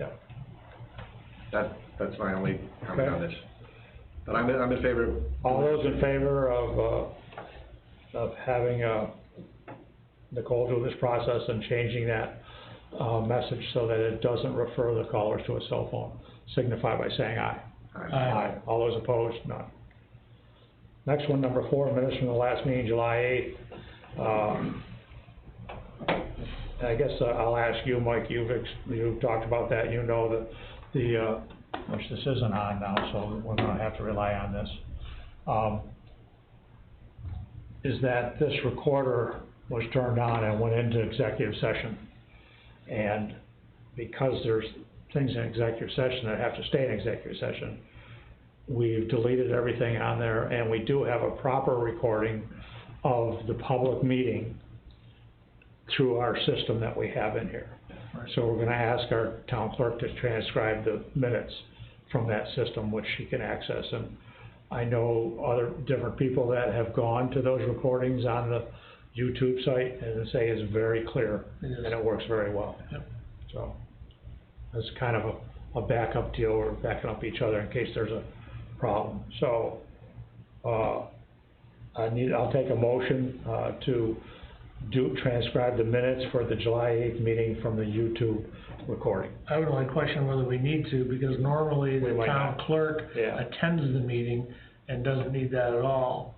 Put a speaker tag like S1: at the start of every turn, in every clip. S1: Yeah.
S2: That, that's my only comment
S1: Okay.
S2: on this. But I'm, in- I'm in favor of.
S1: All those in favor of, uh, of having, uh, Nicole do this process and changing that, uh, message so that it doesn't refer the callers to a cell phone, signify by saying aye. Uh.
S2: Aye.
S1: All those opposed, none. Next one, number four, minutes from the last meeting, July eighth. Um, I guess uh, I'll ask you, Mike, you've, ex- you've talked about that, you know that the, uh, which this isn't on now, so we're gonna have to rely on this. Um, is that this recorder was turned on and went into executive session. And because there's things in executive session that have to stay in executive session, we've deleted everything on there, and we do have a proper recording of the public meeting through our system that we have in here. So we're gonna ask our town clerk to transcribe the minutes from that system, which she can access, and I know other, different people that have gone to those recordings on the YouTube site, and they say it's very clear,
S3: It is.
S1: and it works very well. So, it's kind of a, a backup deal, we're backing up each other in case there's a problem, so, uh, I need, I'll take a motion, uh, to do, transcribe the minutes for the July eighth meeting from the YouTube recording.
S3: I would only question whether we need to, because normally
S1: We
S3: the
S1: might
S3: town
S1: not.
S3: clerk
S1: Yeah.
S3: attends the meeting and doesn't need that at all.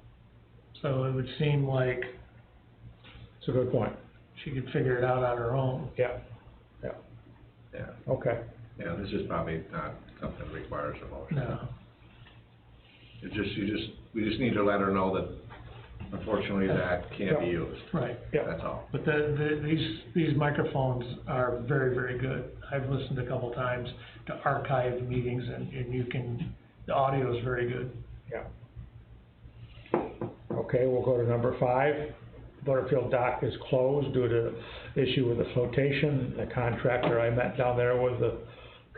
S3: So it would seem like
S1: It's a good point,
S3: she could figure it out on her own.
S1: yeah,
S2: Yeah,
S1: okay,
S2: yeah, this is probably not something that requires a motion.
S3: No,
S2: It just, you just, we just need to let her know that unfortunately that can't be
S1: Yeah.
S2: used,
S3: right.
S1: yeah,
S2: that's all.
S3: But the, the, these, these microphones are very, very good. I've listened a couple times to archived meetings and, and you can, the audio is very good.
S1: yeah. Okay, we'll go to number five, Butterfield Dock is closed due to issue with the flotation, the contractor, I met down there with the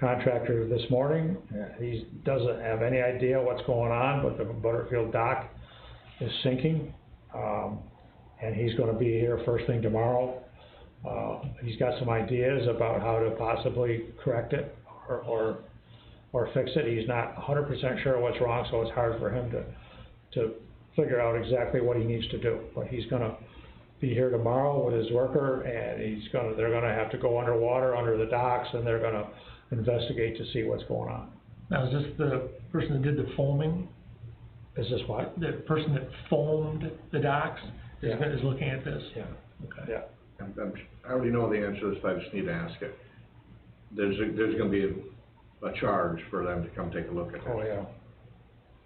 S1: contractor this morning, he doesn't have any idea what's going on, but the Butterfield Dock is sinking, um, and he's gonna be here first thing tomorrow. Uh, he's got some ideas about how to possibly correct it, or, or, or fix it, he's not hundred percent sure what's wrong, so it's hard for him to, to figure out exactly what he needs to do, but he's gonna be here tomorrow with his worker, and he's gonna, they're gonna have to go underwater, under the docks, and they're gonna investigate to see what's going on.
S3: Now, is this the person that did the foaming?
S1: Is this what?
S3: The person that foamed the docks is,
S1: Yeah.
S3: is looking at this?
S1: Yeah.
S3: Okay.
S1: Yeah,
S2: I'm, I'm, I already know the answer to this, but I just need to ask it. There's, a- there's gonna be a, a charge for them to come take a look at
S1: oh,
S2: it.
S1: yeah,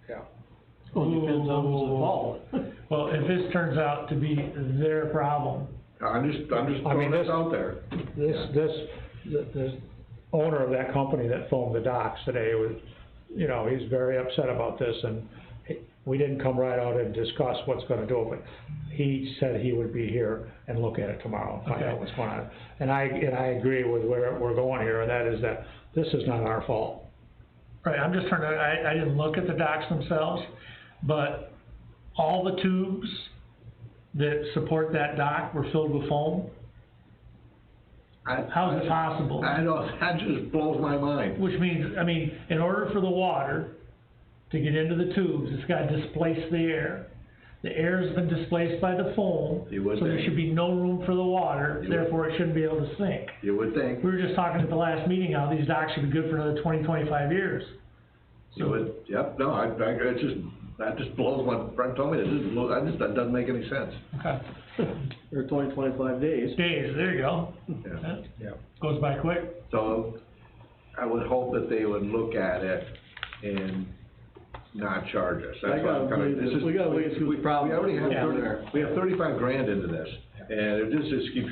S1: yeah.
S4: Well, it depends on who's involved.
S3: Well, if this turns out to be their problem,
S2: I'm just, I'm just
S1: Oh. I mean,
S2: throwing this
S1: this-
S2: out there.
S1: This,
S2: Yeah.
S1: this, the, the owner of that company that foamed the docks today was, you know, he's very upset about this and he- we didn't come right out and discuss what's gonna do, but he said he would be here and look at it tomorrow, and find out
S3: Okay.
S1: what's going on. And I, and I agree with where we're going here, and that is that this is not our fault.
S3: right, I'm just trying to, I, I didn't look at the docks themselves, but all the tubes that support that dock were filled with foam?
S2: I-
S3: How is it possible?
S2: I know, that just blows my mind.
S3: Which means, I mean, in order for the water to get into the tubes, it's gotta displace the air. The air's been displaced by the foam,
S2: You would
S3: so there
S2: think.
S3: should be no room for the water,
S2: You would-
S3: therefore it shouldn't be able to sink.
S2: You would think,
S3: We were just talking at the last meeting how these docks should be good for another twenty, twenty-five years.
S2: you would, yep, no, I, I, it just, that just blows my, Brent told me, it just blows, I just, that doesn't make any sense.
S3: Okay.
S4: Or twenty, twenty-five days.
S3: Days, there you go.
S2: Yeah.
S3: That
S1: Yeah.
S3: Goes by quick.
S2: So I would hope that they would look at it and not charge us. That's
S4: I
S2: why I'm
S4: gotta
S2: kinda-
S4: believe
S2: this
S4: this.
S2: is-
S4: We gotta wait and see what the
S2: we-
S4: problem
S2: We already
S4: is.
S2: have
S3: Yeah.
S2: thirty, we have thirty-five grand into this, and if this just keeps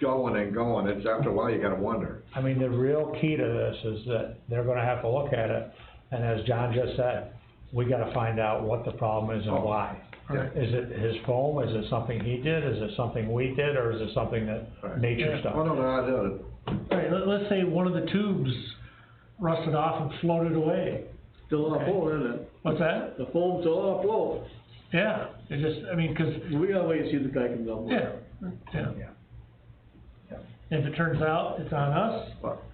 S2: going and going, it's after a while, you gotta wonder.
S1: I mean, the real key to this is that they're gonna have to look at it, and as John just said, we gotta find out what the problem is and why.
S2: Yeah.
S1: Is it his foam, is it something he did, is it something we did, or is it something
S2: Right.
S1: that nature
S3: Yeah.
S2: Oh,
S1: stuff?
S2: no, no, I don't,
S3: Alright, let, let's say one of the tubes rusted off and floated away.
S4: Still on
S3: Okay.
S4: float, isn't it?
S3: What's that?
S4: The foam's still on float.
S3: Yeah, it just, I mean, 'cause
S4: We gotta wait and see if the guy comes up with it.
S3: Yeah, yeah. If it turns out it's on us,
S2: well,